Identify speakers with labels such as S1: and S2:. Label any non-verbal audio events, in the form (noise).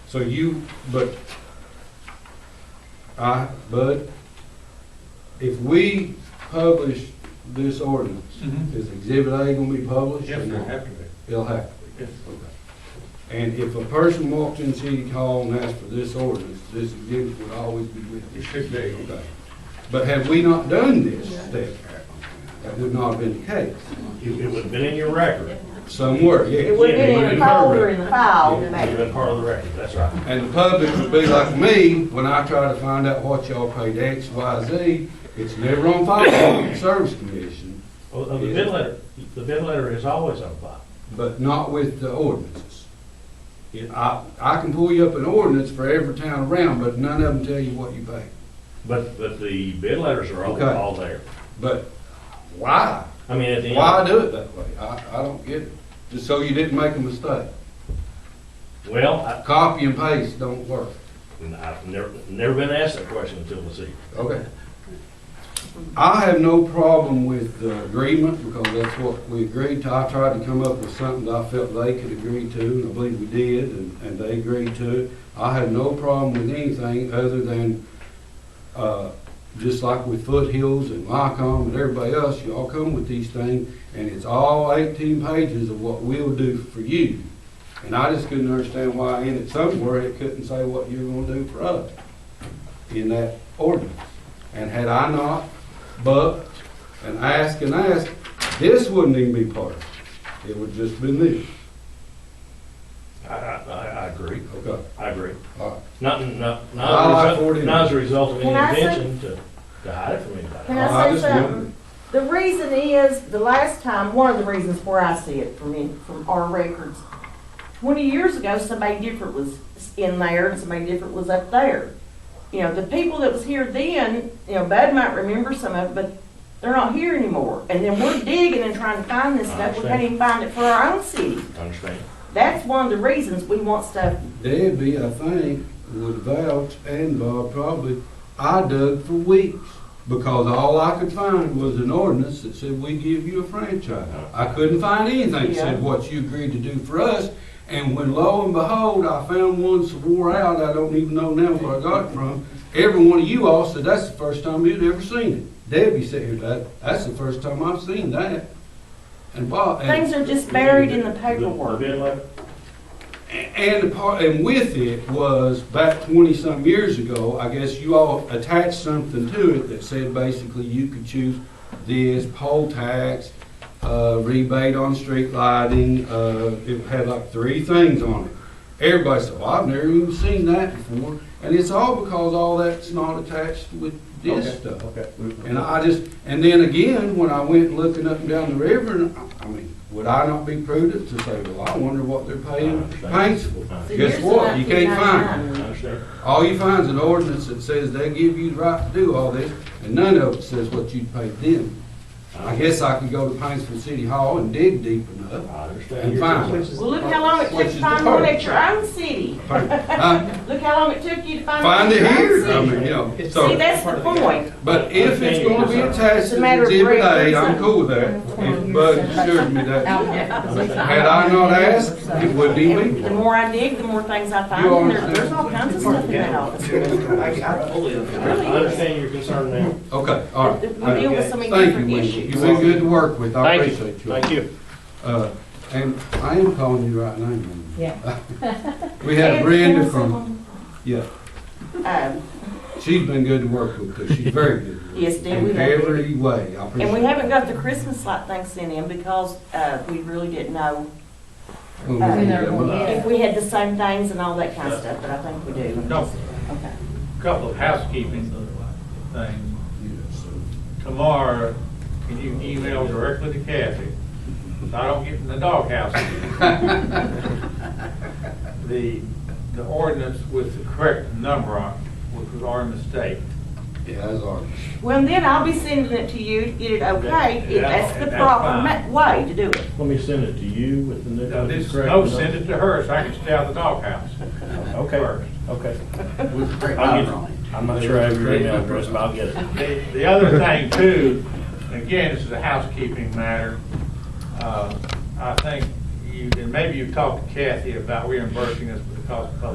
S1: So you, but, I, Bud, if we publish this ordinance,
S2: Mhm.
S1: is Exhibit A gonna be published? or
S2: Yes, they're
S1: not?
S2: happy with it.
S1: It'll have to be.
S2: Yes.
S1: Okay. And if a person walked in City Hall and asked for this ordinance, this exhibit would always be with them.
S2: It should be.
S1: Okay. But have we not done this step? That would not have been the case.
S3: It it would have been in your record.
S1: Somewhere, yeah.
S4: It would have been in the folder in the file,
S3: It would have
S4: maybe.
S3: been part of the record, that's right.
S1: And the public would be like me, when I try to find out what y'all paid X, Y, Z, it's never on file with the (coughs) Service Commission,
S3: Well, the bid letter, the bid letter is always on file.
S1: but not with the ordinances.
S3: Yeah.
S1: I, I can pull you up an ordinance for every town around, but none of them tell you what you paid.
S3: But, but the bid letters are all,
S1: Okay.
S3: all there.
S1: But why?
S3: I mean, at the end.
S1: Why do it that way? I, I don't get it. Just so you didn't make a mistake.
S3: Well, I,
S1: Copy and paste don't work.
S3: I've never, never been asked that question until this evening.
S1: Okay. I have no problem with the agreement because that's what we agreed to. I tried to come up with something that I felt they could agree to, and I believe we did, and, and they agreed to it. I have no problem with anything other than, uh, just like with Foothills and Lycom and everybody else, y'all come with these things, and it's all eighteen pages of what we'll do for you. And I just couldn't understand why in it somewhere it couldn't say what you're gonna do for us in that ordinance. And had I not bucked and asked and asked, this wouldn't even be part of it. It would just been this.
S3: I, I, I I agree,
S1: Okay,
S3: I agree.
S1: all right.
S3: Not, not,
S1: I like
S3: not, as a result-
S1: 49.
S3: not as a result of
S4: Can I
S3: any
S4: say-
S3: intention to, to hide it from
S4: Can
S3: anybody.
S1: I
S4: I say
S1: just
S4: something?
S1: wondered.
S4: The reason is, the last time, one of the reasons where I see it from in, from our records, twenty years ago, somebody different was in there and somebody different was up there. You know, the people that was here then, you know, Bud might remember some of it, but they're not here anymore. And then we're digging and trying to find this
S3: I
S4: stuff, we
S3: understand.
S4: can't even find it for our own city.
S3: I Understand?
S4: That's one of the reasons we want stuff
S1: Debbie, I think, would vouch and Bob probably, I dug for weeks because all I could find was an ordinance that said we give you a franchise. I couldn't find anything that
S4: Yeah.
S1: said what you agreed to do for us. And when lo and behold, I found one swore out, I don't even know now where I got it from. Every one of you all said, that's the first time you'd ever seen it. Debbie said, here, that, that's the first time I've seen that. And Bob. and-
S4: Things are just buried in the
S3: The
S4: paperwork.
S3: bid letter?
S1: and the part, and with it was back twenty-some years ago, I guess you all attached something to it that said basically you could choose this poll tax, uh, rebate on street lighting, uh, it had like three things on it. Everybody said, well, I've never even seen that before, and it's all because all that's not attached with this stuff.
S2: Okay.
S1: And I just, and then again, when I went looking up and down the river, and I- I mean, would I not be prudent to say, well, I wonder what they're paying paints for?
S4: So
S1: Guess
S4: here's
S1: what? You can't
S3: I
S4: 1999.
S1: find
S3: Understand?
S1: it. All you find is an ordinance that says they give you the right to do all this, and none of it says what you'd pay them. I guess I could go to Paintsville City Hall and dig deep
S2: (laughs)
S1: enough.
S3: I
S1: And
S3: understand.
S1: fine.
S4: Well, look how long it
S1: Which
S4: took
S1: is
S4: to
S1: the
S4: find one at
S1: purpose.
S4: your own city.
S1: Huh?
S4: Look how long it took you to find one
S1: Find
S4: at
S1: it
S4: your own
S1: here, I
S4: city.
S1: mean, you know,
S4: See,
S1: so,
S4: that's the point.
S1: but if it's gonna be attached
S4: It's a
S1: to
S4: matter of
S1: Exhibit
S4: record,
S1: A, I'm
S4: isn't it?
S1: cool with that. If Bud assured me that, had
S5: Had
S1: I not asked, it wouldn't even be.
S4: And the
S1: there.
S4: more I dig, the more things I find,
S1: You
S4: and there-
S1: understand.
S4: there's all kinds of stuff in that office.
S3: I understand your concern now.
S1: Okay, all right.
S4: We deal with so many
S1: Thank you,
S4: different
S1: Wendy.
S4: issues.
S1: You've been good to work with. I
S3: Thank you.
S1: appreciate you.
S3: Thank you.
S1: Uh, and I am calling you right now. Wendy.
S5: Yeah.
S1: We had Brenda from, yeah,
S4: Um,
S1: she's been good to work with, too. She's very good. to work
S4: Yes,
S1: with
S4: dear, we
S1: In
S4: love her.
S1: every way, I appreciate it.
S4: And we haven't got the Christmas light thing sent in because uh, we really didn't know um,
S1: Well, we did that one.
S5: Yeah.
S4: if we had the same things and all that kind of stuff, but I think we do.
S2: No,
S4: Okay.
S2: a couple of housekeeping things.
S1: Yes.
S2: Tomorrow, can you email directly to Kathy? So I don't get in the doghouse.
S1: (laughs)
S4: (laughs)
S2: The, the ordinance with the correct number on, it, which was our mistake.
S1: Yeah, that's all right.
S4: Well, and then I'll be sending it to you to get it okay, if
S2: Yeah,
S4: that's the
S2: that's
S4: proper
S2: fine.
S4: ma- way to do it.
S3: Let me send it to you with the new.
S2: Now, this,
S3: correct
S2: no,
S3: number.
S2: send it to her so I can stay out of the doghouse.
S3: Okay, okay.
S1: I'll get-
S3: I'm not sure I have your email address, but I'll get it.
S2: The, the other thing too, again, this is a housekeeping matter. Uh, I think you, and maybe you've talked to Kathy about reimbursing us for the cost of public